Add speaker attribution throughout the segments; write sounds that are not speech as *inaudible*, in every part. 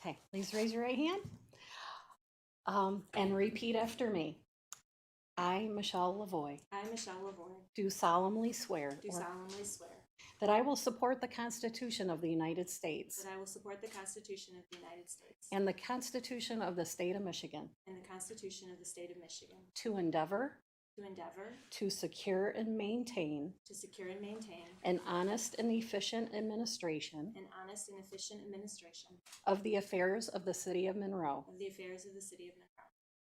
Speaker 1: Okay, please raise your right hand um, and repeat after me. I, Michelle Lavoy,
Speaker 2: I, Michelle Livorni,
Speaker 1: do solemnly swear
Speaker 2: do
Speaker 1: or-
Speaker 2: solemnly swear
Speaker 1: that I will support the Constitution of the United States
Speaker 2: that I will support the Constitution of the United States
Speaker 1: and the Constitution of the State of Michigan
Speaker 2: and the Constitution of the State of Michigan,
Speaker 1: to endeavor
Speaker 2: to endeavor
Speaker 1: to secure and maintain
Speaker 2: to secure and maintain
Speaker 1: an honest and efficient administration
Speaker 2: an honest and efficient administration
Speaker 1: of the affairs of the City of Monroe,
Speaker 2: of the affairs of the City of Monroe,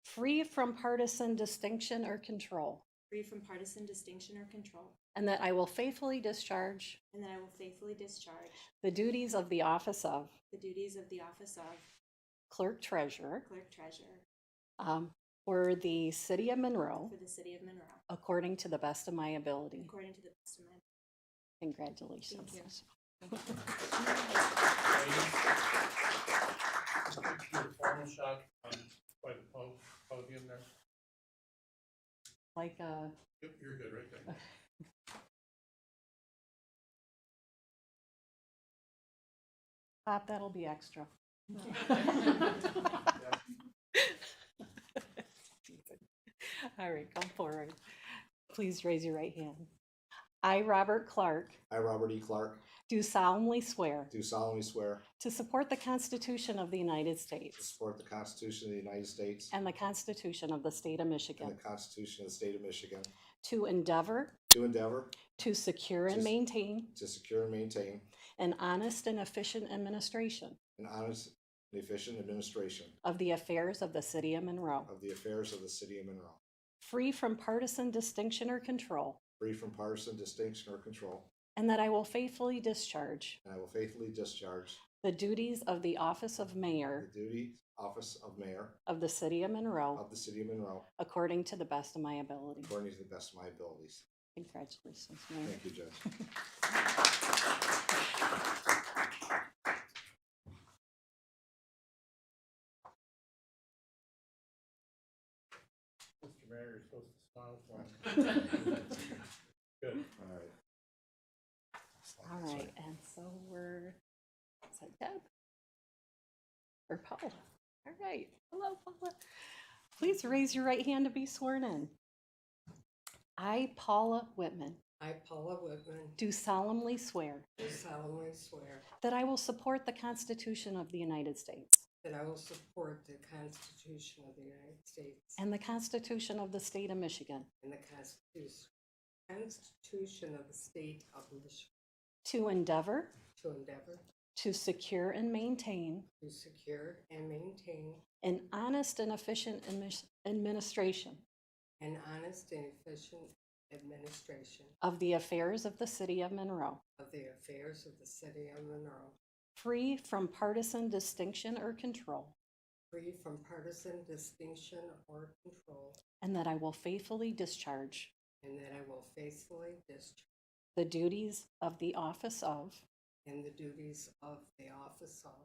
Speaker 1: free from partisan distinction or control,
Speaker 2: free from partisan distinction or control,
Speaker 1: and that I will faithfully discharge
Speaker 2: and that I will faithfully discharge
Speaker 1: the duties of the office of
Speaker 2: the duties of the office of
Speaker 1: Clerk Treasurer
Speaker 2: Clerk Treasurer
Speaker 1: um, for the City of Monroe
Speaker 2: for the City of Monroe,
Speaker 1: according to the best of my ability.
Speaker 2: according to the best of my ability.
Speaker 1: Congratulations.
Speaker 2: Thank you.
Speaker 1: Michelle.
Speaker 3: Your formal shot um, by the po- podium there.
Speaker 1: Like a
Speaker 3: Yep, you're good right there.
Speaker 1: pop, that'll be extra. *laughs* All right, come forward. Please raise your right hand. I, Robert Clark,
Speaker 4: I, Robert E. Clark,
Speaker 1: do solemnly swear
Speaker 4: do solemnly swear
Speaker 1: to support the Constitution of the United
Speaker 4: to
Speaker 1: States
Speaker 4: support the Constitution of the United States
Speaker 1: and the Constitution of the State of
Speaker 4: and the
Speaker 1: Michigan,
Speaker 4: Constitution of the State of Michigan,
Speaker 1: to endeavor
Speaker 4: to endeavor
Speaker 1: to secure and
Speaker 4: To-
Speaker 1: maintain
Speaker 4: to secure and maintain
Speaker 1: an honest and efficient administration
Speaker 4: an honest and efficient administration
Speaker 1: of the affairs of the City of Monroe,
Speaker 4: of the affairs of the City of Monroe,
Speaker 1: free from partisan distinction or control,
Speaker 4: free from partisan distinction or control,
Speaker 1: and that I will faithfully discharge
Speaker 4: and I will faithfully discharge
Speaker 1: the duties of the office of
Speaker 4: the
Speaker 1: mayor
Speaker 4: duty office of Mayor
Speaker 1: of the City of Monroe
Speaker 4: of the City of Monroe
Speaker 1: according to the best of my ability.
Speaker 4: according to the best of my abilities.
Speaker 1: Congratulations, Mayor.
Speaker 4: Thank you, Judge.
Speaker 3: Mr. Mayor, you're supposed to smile for him. Good.
Speaker 4: All right.
Speaker 1: All right, and so we're, is that Deb? Or Paula? All right, hello Paula. Please raise your right hand to be sworn in. I, Paula Whitman,
Speaker 5: I, Paula Whitman,
Speaker 1: do solemnly swear
Speaker 5: do solemnly swear
Speaker 1: that I will support the Constitution of the United States
Speaker 5: that I will support the Constitution of the United States
Speaker 1: and the Constitution of the State of Michigan
Speaker 5: and the Constitu- Constitution of the State of Michigan
Speaker 1: to endeavor
Speaker 5: to endeavor
Speaker 1: to secure and maintain
Speaker 5: to secure and maintain
Speaker 1: an honest and efficient admis- administration
Speaker 5: an honest and efficient administration
Speaker 1: of the affairs of the City of Monroe,
Speaker 5: of the affairs of the City of Monroe,
Speaker 1: free from partisan distinction or control,
Speaker 5: free from partisan distinction or control,
Speaker 1: and that I will faithfully discharge
Speaker 5: and that I will faithfully discharge
Speaker 1: the duties of the office of
Speaker 5: in the duties of the office of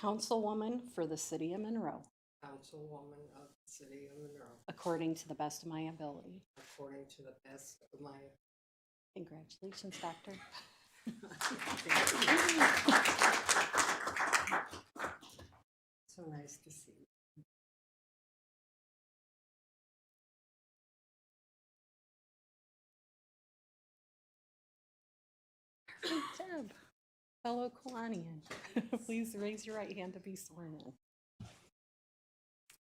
Speaker 1: Councilwoman for the City of Monroe
Speaker 5: Councilwoman of the City of Monroe.
Speaker 1: according to the best of my ability.
Speaker 5: according to the best of my.
Speaker 1: Congratulations, Doctor.
Speaker 5: So nice to see you.
Speaker 1: Deb, fellow Kalanian, *laughs* please raise your right hand to be sworn in.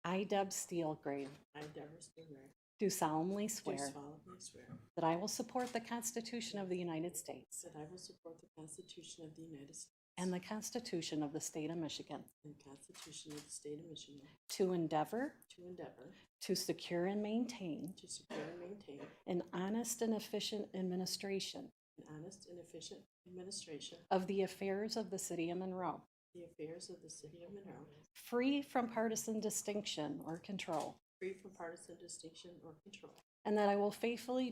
Speaker 1: I, Deb Steelgrave,
Speaker 5: I, Deborah Stigmar,
Speaker 1: do solemnly
Speaker 5: do
Speaker 1: swear
Speaker 5: solemnly swear
Speaker 1: that I will support the Constitution of the United States
Speaker 5: that I will support the Constitution of the United States
Speaker 1: and the Constitution of the State of Michigan
Speaker 5: and the Constitution of the State of Michigan
Speaker 1: to endeavor
Speaker 5: to endeavor
Speaker 1: to secure and maintain
Speaker 5: to secure and maintain
Speaker 1: an honest and efficient administration
Speaker 5: an honest and efficient administration
Speaker 1: of the affairs of the City of Monroe,
Speaker 5: of the affairs of the City of Monroe,
Speaker 1: free from partisan distinction or control,
Speaker 5: free from partisan distinction or control,
Speaker 1: and that I will faithfully